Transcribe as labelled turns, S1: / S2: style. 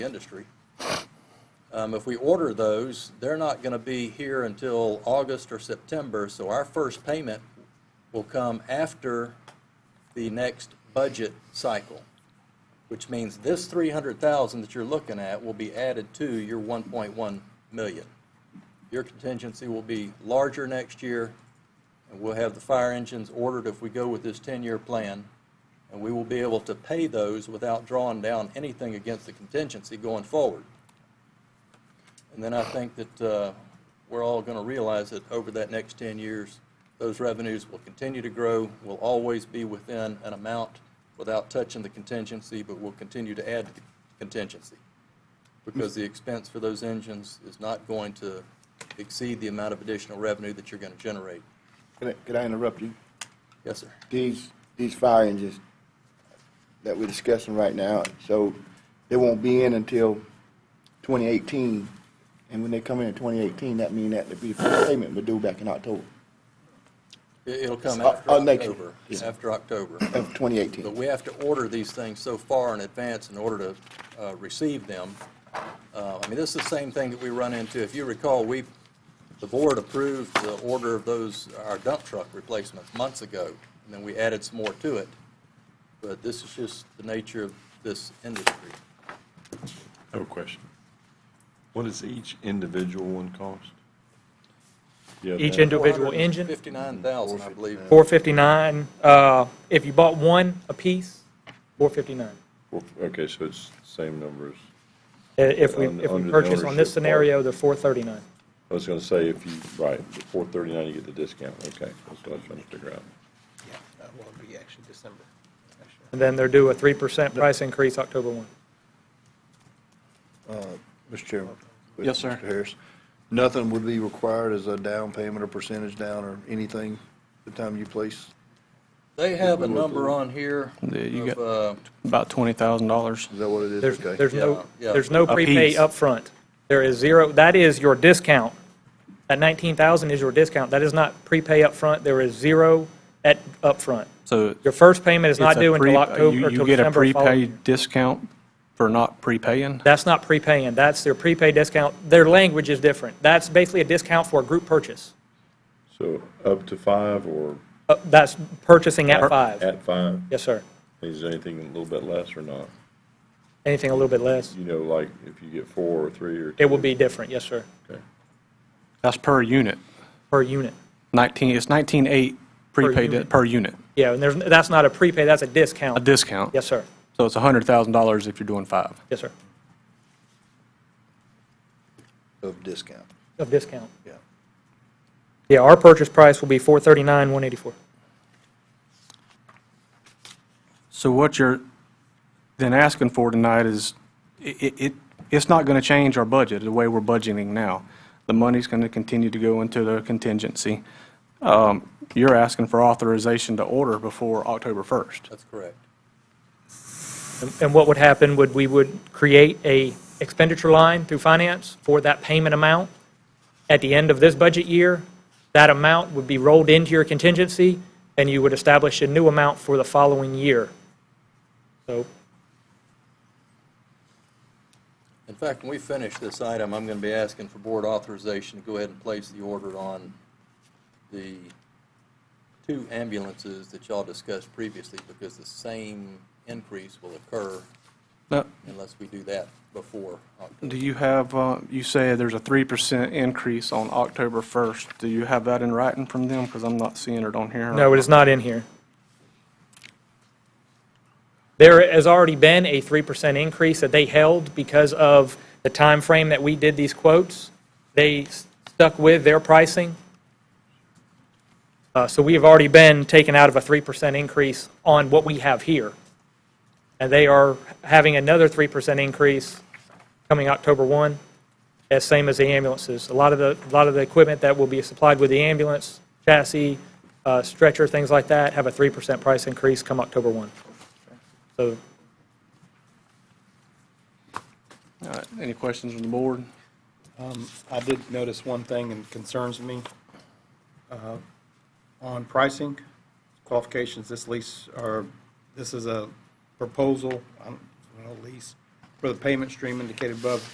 S1: the industry. Um, If we order those, they're not going to be here until August or September, so our first payment will come after the next budget cycle, which means this 300,000 that you're looking at will be added to your 1.1 million. Your contingency will be larger next year, and we'll have the fire engines ordered if we go with this 10-year plan, and we will be able to pay those without drawing down anything against the contingency going forward. And then I think that uh, we're all going to realize that over that next 10 years, those revenues will continue to grow, will always be within an amount without touching the contingency, but will continue to add to the contingency. Because the expense for those engines is not going to exceed the amount of additional revenue that you're going to generate.
S2: Can I, can I interrupt you?
S1: Yes, sir.
S2: These, these fire engines that we're discussing right now, so they won't be in until 2018. And when they come in in 2018, that mean that the be the payment would due back in October
S1: It- It'll come
S2: Uh,
S1: after
S2: uh, next year.
S1: October,
S2: Yeah.
S1: after October.
S2: of
S1: But
S2: 2018.
S1: we have to order these things so far in advance in order to uh, receive them. Uh, I mean, this is the same thing that we run into. If you recall, we, the board approved the order of those, our dump truck replacements months ago, and then we added some more to it. But this is just the nature of this industry.
S3: I have a question. What does each individual one cost? Yeah,
S4: Each
S3: that-
S4: individual engine,
S1: 459,000, I believe.
S4: 459, uh, if you bought one apiece, 459.
S3: well, Okay, so it's same numbers.
S4: Uh, If we,
S3: On-
S4: if
S3: under
S4: we
S3: the
S4: purchase on
S3: ownership part.
S4: this scenario, they're 439.
S3: I was gonna say, if you, right, the four thirty-nine, you get the discount, okay, that's what I was trying to figure out.
S5: Yeah, that will Uh, be actually December.
S4: And then they're due a 3% price increase October 1.
S6: Mr. Chairman?
S7: Yes, sir.
S6: Mr. Harris, nothing would be required as a down payment or percentage down or anything the time you place?
S1: They have a number on here
S7: Yeah, you
S1: of,
S7: got-
S1: uh,
S7: About twenty thousand dollars.
S6: Is that what it is?
S4: There's,
S6: Okay.
S4: there's no,
S1: Yeah, yeah.
S4: there's no
S7: Apiece.
S4: prepay upfront. There is zero, that is your discount. That 19,000 is your discount. That is not prepay upfront. There is zero at upfront.
S7: So
S4: Your first payment is
S7: it's
S4: not
S7: a
S4: due until
S7: pre-
S4: October,
S7: you-
S4: or till
S7: You get a
S4: December of following year.
S7: prepaid discount for not prepaying?
S4: That's not prepaying, that's their prepaid discount. Their language is different. That's basically a discount for a group purchase.
S3: So up to five or
S4: Uh, That's purchasing at five.
S3: at five?
S4: Yes, sir.
S3: Is anything a little bit less or not?
S4: Anything a little bit less,
S3: You know, like if you get four or three or two?
S4: it will be different, yes, sir,
S3: Okay.
S7: That's per unit.
S4: per unit.
S7: Nineteen, it's nineteen-eight prepaid, di-
S4: unit.
S7: per unit,
S4: Yeah, and there's, that's not a prepay, that's a
S7: a
S4: discount.
S7: discount.
S4: Yes, sir.
S7: So it's a hundred thousand dollars if you're doing five.
S4: Yes, sir.
S6: Of discount,
S4: Of discount.
S6: yeah.
S4: Yeah, our purchase price will be four thirty-nine, one eighty-four.
S7: So what you're then asking for tonight is, i- i- it, it's not going to change our budget, the way we're budgeting now. The money's going to continue to go into the contingency. Um, You're asking for authorization to order before October 1st.
S1: that's correct.
S4: And what would happen would, we would create a expenditure line through finance for that payment amount. At the end of this budget year, that amount would be rolled into your contingency, and you would establish a new amount for the following year. So,
S1: In fact, when we finish this item, I'm going to be asking for board authorization to go ahead and place the order on the two ambulances that y'all discussed previously, because the same increase will occur
S7: Now,
S1: unless we do that before October.
S7: do you have, uh, you say there's a 3% increase on October 1st. Do you have that in writing from them? Because I'm not seeing it on here.
S4: no, it is not in here. There has already been a 3% increase that they held because of the time frame that we did these quotes. They s- stuck with their pricing. Uh, So we have already been taken out of a 3% increase on what we have here. And they are having another 3% increase coming October 1, as same as the ambulances. A lot of the, a lot of the equipment that will be supplied with the ambulance, chassis, uh, stretcher, things like that, have a 3% price increase come October 1. So
S7: All right, Any questions from the board?
S5: I did notice one thing and concerns me. uh, On pricing, qualifications, this lease, or this is a proposal, I don't know, lease, for the payment stream indicated above